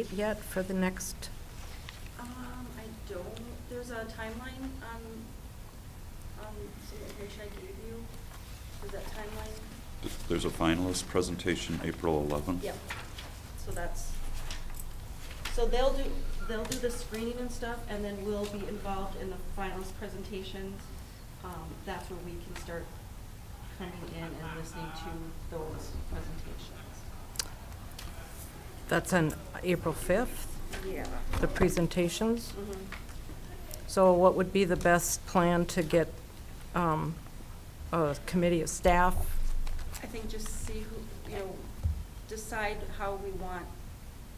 date yet for the next, Um, I don't, there's a timeline, um, um, some information I gave you, is that timeline? There's a finalist presentation April 11th. Yep, so that's, so they'll do, they'll do the screening and stuff, and then we'll be involved in the finals presentations. Um, that's where we can start coming in and listening to those presentations. that's on April 5th, Yeah. the presentations? Mhm. So what would be the best plan to get um, a committee of staff? I think just see who, you know, decide how we want,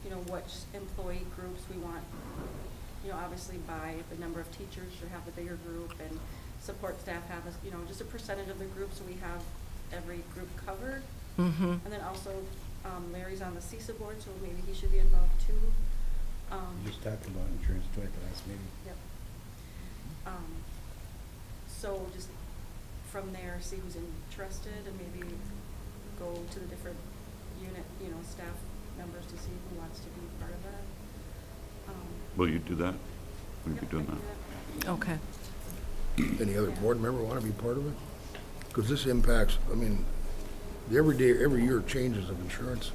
you know, what employee groups we want. You know, obviously by the number of teachers should have a bigger group and support staff have, a you know, just a percentage of the group so we have every group covered. Mm-hmm. And then also um, Larry's on the CISA board, so maybe he should be involved too. Um, We just talked about insurance too at the last meeting. Yep. Um, so just from there, see who's interested and maybe go to the different unit, you know, staff members to see who wants to be part of that. Um, Will you do that? Will you yep, be I doing can do that? Okay. Any other board member want to be part of it? Because this impacts, I mean, the every day, every year changes of insurance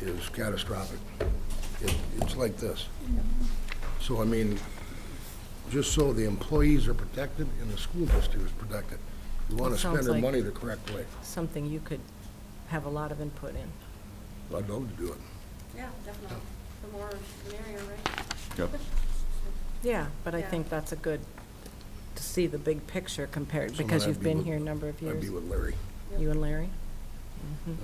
is catastrophic. It- It's like this. So, I mean, just so the employees are protected and the school district is protected, we want That to spend sounds our like- money the correct way. Something you could have a lot of input in. I'd love to do it. Yeah, definitely. The more the merrier, right? Yep. Yeah, but I Yeah. think that's a good, to see the big picture compared, Someone because I'd you've be been with- here a number of I'd years. be with Larry. Yep. You and Larry? Mhm.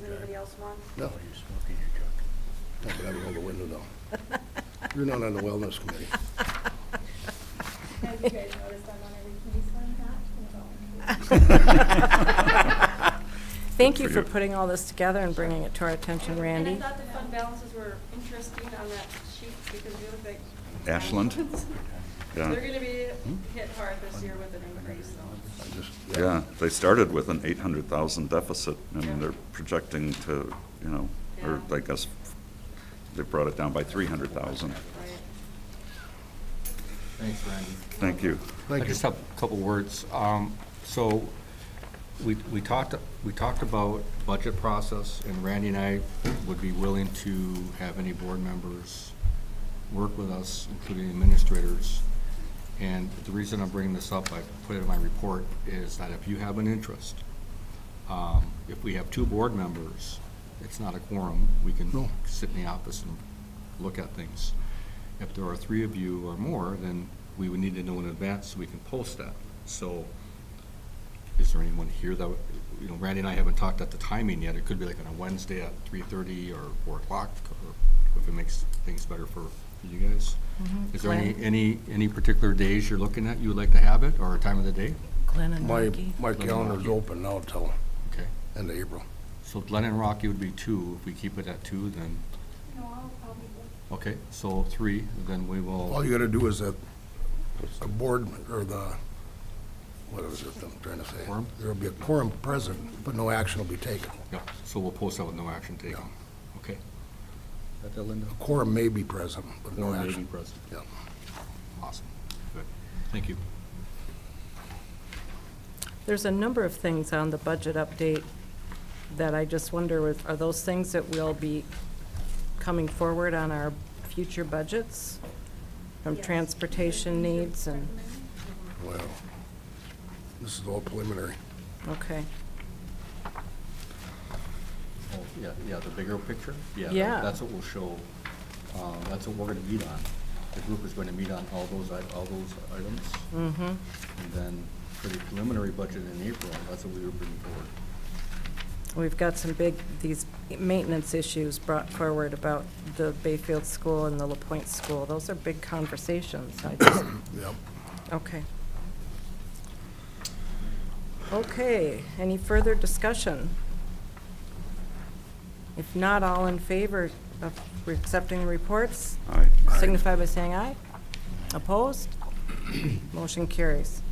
Does anybody else want? No, While you're smoking your junk. no, but I'd roll the window down. You're not on the wellness committee. Have you guys noticed I'm on every committee, so I'm not involved. Thank Good you for for you. putting all this together and bringing it to our attention, And- Randy. And I thought the fund balances were interesting on that sheet because you look like. Ashland? Yeah. Hmm? They're gonna be hit hard this year with an increase, so. I just, Yeah, they started with an 800,000 deficit, and they're projecting to, you know, or Yeah. I guess, they brought it down by 300,000. Right. Thanks, Randy. Thank you. Thank I you. just have a couple words. Um, So we we talked, we talked about budget process, and Randy and I would be willing to have any board members work with us, including administrators. And the reason I'm bringing this up, I put it in my report, is that if you have an interest, um, if we have two board members, it's not a quorum. We can No. sit in the office and look at things. If there are three of you or more, then we would need to know in advance so we can post that. So is there anyone here that, would- you know, Randy and I haven't talked at the timing yet. It could be like on a Wednesday at three thirty or four o'clock, or if it makes things better for you guys. Mm-hmm. Is there any, Glenn? any, any particular days you're looking at you would like to have it, or a time of the day? Glenn and My, Margie. my calendar's open now till Okay. end of April. So Glen and Rocky would be two. If we keep it at two, then, No, I'll, I'll be with okay, so three, then we All will, you gotta do is a, a board, or the, what is it I'm trying to say? Quorum? There'll be a quorum present, but no action will be taken. yeah, so we'll post that with no action taken. Okay. Got that, Linda? A quorum may be present, but no Or maybe action. present. Yeah. Awesome. Good. Thank you. There's a number of things on the budget update that I just wonder, if- are those things that will be coming forward on our future budgets? From Yes. transportation needs and, Well, this is all preliminary. okay. Oh, Yeah, yeah, the bigger picture? Yeah. that- Yeah. That's what we'll show, uh, that's what we're gonna meet on. The group is gonna meet on all those, i- all those items. Mm-hmm. And then for the preliminary budget in April, that's what we were bringing forward. We've got some big, these maintenance issues brought forward about the Bayfield School and the La Pointe School. Those are big conversations. I just Yep. Okay. Okay, any further discussion? If not, all in favor of accepting the reports, All right. signify by saying aye. Opposed? Motion carries.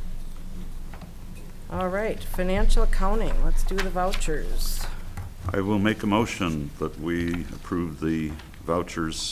All right, financial accounting, let's do the vouchers. I will make a motion that we approve the vouchers